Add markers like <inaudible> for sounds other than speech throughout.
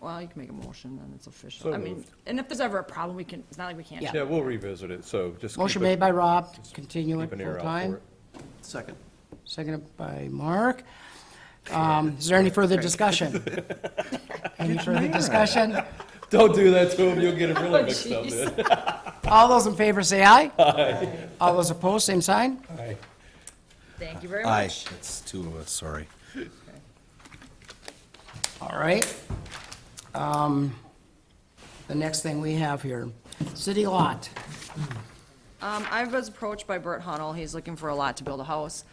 Well, you can make a motion, then it's official. So I mean, moved. and if there's ever a problem, we can, it's not like we can't. Yeah. Yeah, we'll revisit it, so just. keep Motion a- made by Rob, to continue it Keep an ear full out time. for it. Second. Seconded by Mark. Um, Is there any <laughs> further discussion? Any further discussion? Don't do that to him, <laughs> you'll get it really Oh, mixed up. jeez. man. All those in favor say aye. Aye. All those opposed, same sign? Aye. Thank you very Aye. much. It's two of us, sorry. All right. Um, The next thing we have here, city lot. Um, I was approached by Bert Hunnell, he's looking for a lot to build a house.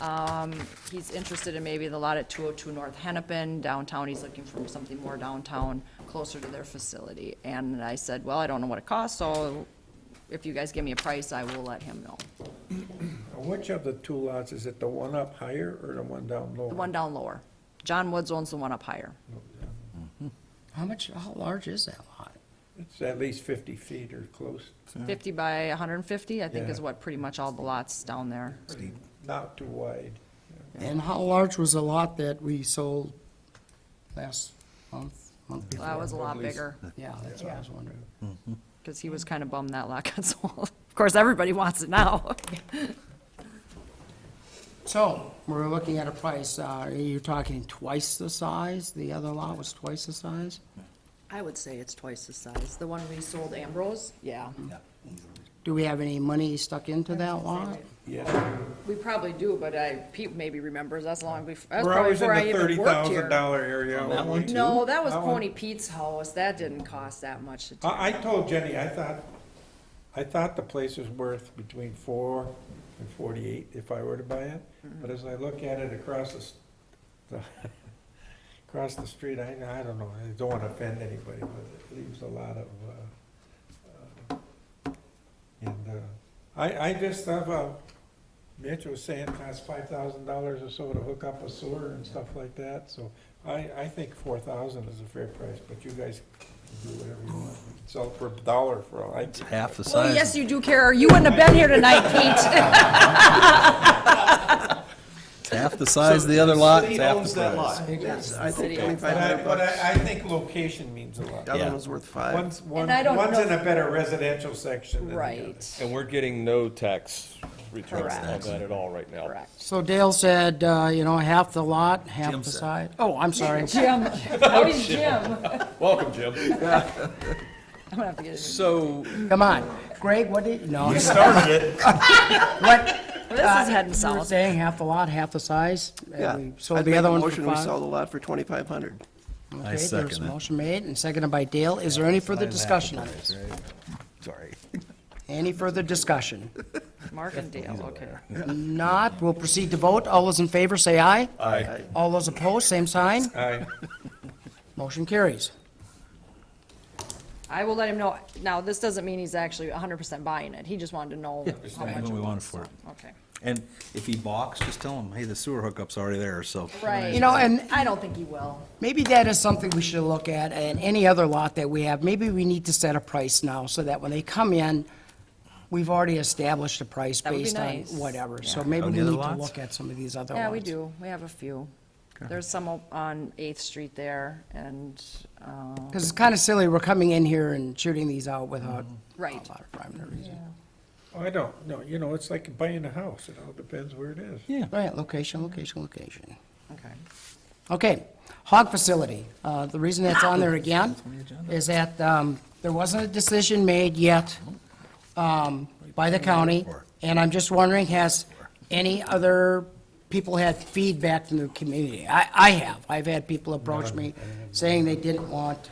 Um, he's interested in maybe the lot at two oh two North Hennepin, downtown, he's looking for something more downtown, closer to their facility. And I said, well, I don't know what it costs, so if you guys give me a price, I will let him know. Which of the two lots, is it the one up higher or the one down lower? The one down lower. John Woods owns the one up higher. How much, how large is that lot? It's at least fifty feet or close, Fifty by hundred and fifty, I think is Yeah. what pretty much all the lots down there. not too wide. And how large was the lot that we sold last month, month before? That was a lot bigger, Yeah, that's what I was wondering. because he was kind of bummed that lot got <laughs> sold. Of course, everybody wants it now. <laughs> So, we're looking at a price, uh, are you talking twice the size? The other lot was twice the size? I would say it's twice the size. The one we sold Ambrose? Yeah. Do we have any money stuck into that lot? Yeah, We probably do, but I, Pete maybe remembers, that's long before, that's we're probably always in before I the thirty even worked here. thousand dollar area. aren't we? No, that was That one- Uh-uh. Pony Pete's house, that didn't cost that much to tear. I, I told Jenny, I thought, I thought the place was worth between four and forty-eight if I were to buy it. Mm-hmm. But as I look at it across the, s- the, <laughs> across the street, I, I don't know, I don't wanna offend anybody, but it leaves a lot of, uh, uh, and, uh, I, I just have uh Mitch was saying it costs five thousand dollars or so to hook up a sewer and stuff like that, so I, I think four thousand is a fair price, but you guys can do whatever you want. Sell it for a dollar for all I care. Half the Well, yes, size. you do care, or you wouldn't have been here <laughs> tonight, Pete. Half the size of the other lot, it's City half owns the that price. lot. Yes, <laughs> I City think owns twenty-five But I, but hundred bucks. I, I think location means a lot. The other Yeah. one was worth five. One's, one's, I don't one's in know- a better residential section than the other. Right, And we're getting no tax returns on Correct. that at all right now. correct. So Dale said, uh, you know, half the lot, half Jim the said. side. Oh, I'm sorry. <laughs> Jim, Oh, how is Jim? <laughs> I'm Welcome, Jim. gonna have to get a new. So, Come on. Greg, what did, no. You started it. What? This is heading You were south. saying half the lot, half the size? and Yeah. we Sold I'd the make other a one for motion, We five? sold the lot for twenty-five hundred. Okay, I there's second a it. Motion made and seconded by Dale. Is there any further discussion on this? Sorry. Any further discussion? Mark and Dale, okay. Not, we'll proceed to vote. All those in favor, say aye. I, All those opposed, same sign. Aye. Motion carries. I will let him know. Now, this doesn't mean he's actually hundred percent buying it. He just wanted to know how much what it we wanted was, for so, it. okay. And if he balks, just tell him, hey, the sewer hookup's already there, so. Right. You know, and I don't think he will. maybe that is something we should look at, and any other lot that we have, maybe we need to set a price now, so that when they come in, we've already established a price That would be based on nice. whatever. So maybe On we the need other to lots? look at some of these Oh, other ones. Yeah, we do. We have a few. There's some o- on Eighth Street there and, uh, Because it's kind of silly, we're coming in here and shooting these out without Mm-hmm. a Right. lot of rhyme or reason. Oh, I don't, no, you know, it's like buying a house, it all depends where it is. Yeah. Right, location, location, location. okay. Okay, hog facility. Uh, The reason that's on there again is that um, there wasn't a decision made yet um, by the county, and I'm just wondering, has any other people had feedback from the community? I, I have. I've had people approach me saying they didn't want,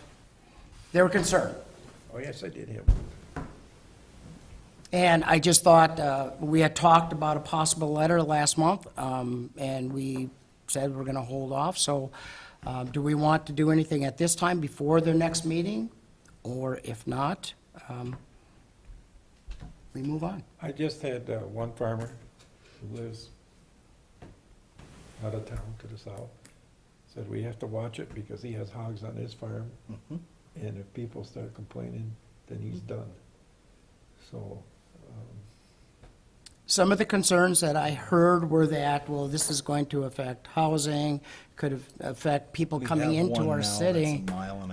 they were concerned. Oh, yes, I did have. And I just thought, uh, we had talked about a possible letter last month, um, and we said we're going to hold off, so um, do we want to do anything at this time before their next meeting? Or if not, um, we move on. I just had uh, one farmer who lives out of town to the south, said we have to watch it because he has hogs on his farm. And if people start complaining, then he's done. So, Some of the concerns that I heard were that, well, this is going to affect housing, could affect people We coming have into one now our that's city. a mile and a